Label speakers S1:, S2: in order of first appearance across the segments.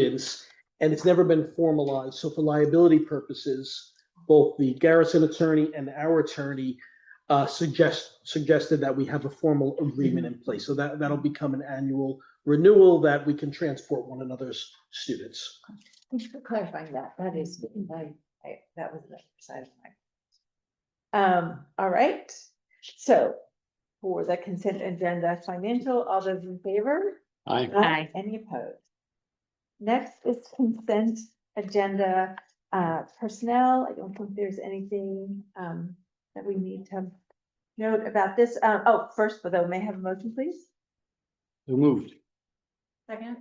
S1: students, and it's never been formalized. So for liability purposes, both the Garrison attorney and our attorney uh, suggest, suggested that we have a formal agreement in place. So that, that'll become an annual renewal that we can transport one another's students.
S2: Thank you for clarifying that. That is, I, I, that was the side of my. Um, all right, so for the consent agenda financial, all those in favor?
S3: Aye.
S2: Aye. Any opposed? Next is consent agenda, uh, personnel. I don't think there's anything, um, that we need to note about this. Uh, oh, first, but though, may I have a motion, please?
S3: So moved.
S2: Second.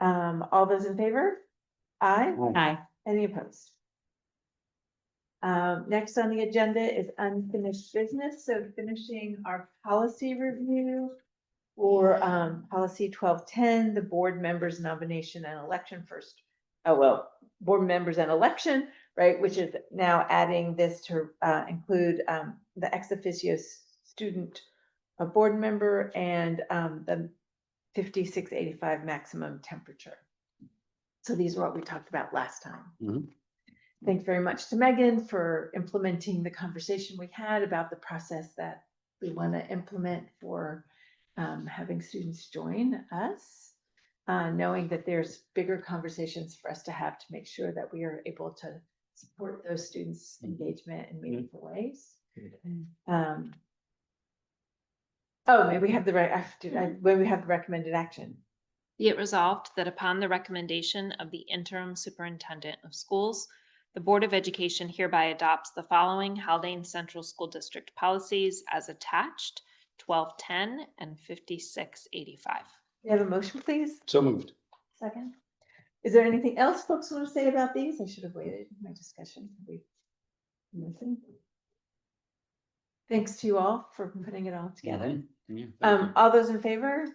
S2: Um, all those in favor? Aye.
S4: Aye.
S2: Any opposed? Um, next on the agenda is unfinished business, so finishing our policy review. For um, policy twelve ten, the board members nomination and election first. Oh, well, board members and election, right, which is now adding this to uh include um the ex officio s- student. A board member and um the fifty-six eighty-five maximum temperature. So these are what we talked about last time.
S3: Mhm.
S2: Thanks very much to Megan for implementing the conversation we had about the process that we want to implement for um, having students join us, uh, knowing that there's bigger conversations for us to have to make sure that we are able to support those students' engagement in meaningful ways. Um, Oh, maybe we have the right, I- did I- when we have the recommended action.
S4: Be it resolved that upon the recommendation of the interim superintendent of schools, the Board of Education hereby adopts the following Haldane Central School District policies as attached, twelve ten and fifty-six eighty-five.
S2: You have a motion, please?
S3: So moved.
S2: Second. Is there anything else folks want to say about these? I should have waited in my discussion. Have we- Nothing? Thanks to you all for putting it all together.
S3: Mhm. Yeah, thank
S2: Um, all those in favor?
S3: you.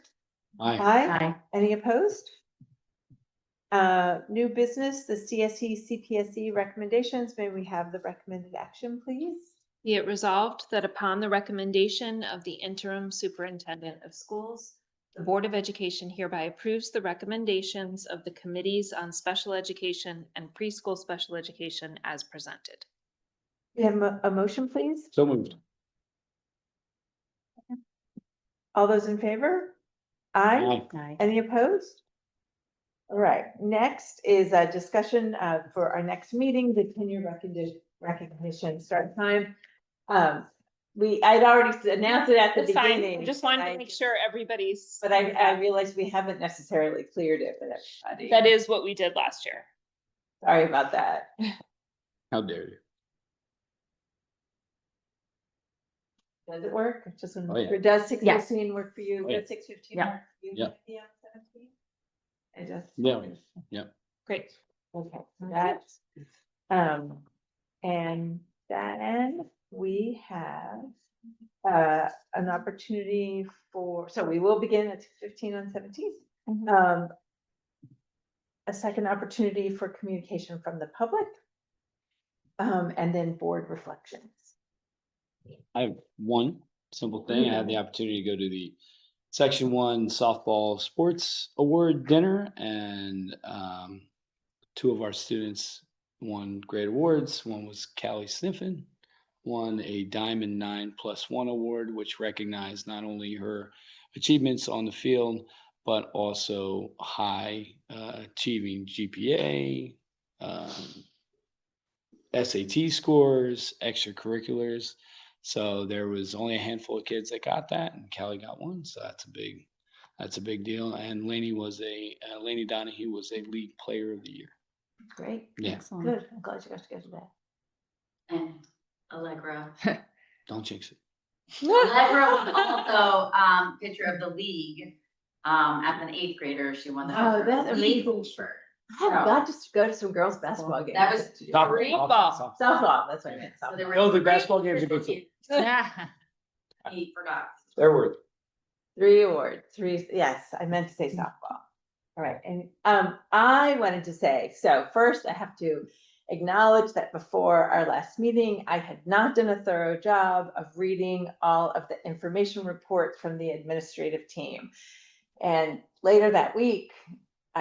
S3: Aye.
S2: Aye. Any opposed? Uh, new business, the E, CSE, CPSE recommendations. May we have the recommended action, please?
S4: Be it resolved that upon the recommendation of the interim superintendent of schools, the Board of Education hereby approves the recommendations of the Committees on Special Education and Preschool Special Education as presented.
S2: We have a, a motion, please?
S3: So moved.
S2: All those in favor? Aye.
S4: Aye.
S2: Any opposed? All right, next is a discussion uh, for our next meeting, the tenure recognition, recognition start time. Um, We, I'd already announced it at the
S4: That's fine.
S2: beginning.
S4: I just wanted
S2: I-
S4: to make sure everybody's.
S2: But I, I realized we haven't necessarily cleared it with everybody.
S4: That is what we did last year.
S2: Sorry about that.
S3: How dare you?
S2: Does it work? I Just want to
S3: Oh,
S2: make
S3: yeah.
S2: sure. Does six
S5: Yes.
S2: fifteen work for you?
S3: Oh, yeah.
S2: Does six fifteen
S5: Yeah.
S2: work? for you,
S3: Yeah.
S2: Cynthia, on 17? I just.
S3: Yeah, yeah.
S4: Great.
S2: Okay, so that's, um, and then we have uh, an opportunity for, so we will begin at fifteen on seventeenth.
S4: Mhm.
S2: Um, a second opportunity for communication from the public. Um, and then board reflections.
S3: I have one simple thing. I had the opportunity to go to the section one softball sports award dinner and um. Two of our students won great awards. One was Callie Sniffen. Won a Diamond Nine Plus One Award, which recognized not only her achievements on the field, but also high uh, achieving GPA, um, SAT scores, extracurriculars. So there was only a handful of kids that got that, and Callie got one. So that's a big, that's a big deal. And Laney was a uh, Laney Donahue was a league player of the year.
S2: Great,
S3: Yeah,
S5: Excellent.
S2: good. I'm glad you got to go to that.
S6: and Allegra.
S3: don't jinx it.
S6: Allegra was also um pitcher of the league. Um, as an eighth grader, she won the.
S2: Wow,
S6: Pitcher of the
S2: that's
S6: League
S2: amazing.
S6: Pitcher.
S2: I'm
S6: So-
S2: glad to s- go to some girls' basketball games.
S6: That was.
S4: Great ball.
S2: Softball, that's what I meant.
S6: So there
S2: softball.
S6: were
S3: No, Oh, the
S6: three
S3: basketball games are good
S6: pitchers. He forgot.
S3: They're worth. it.
S2: Three awards, three, yes, I meant to say softball. All right, and um, I wanted to say, so first I have to acknowledge that before our last meeting, I had not done a thorough job of reading all of the information reports from the administrative team. And later that week,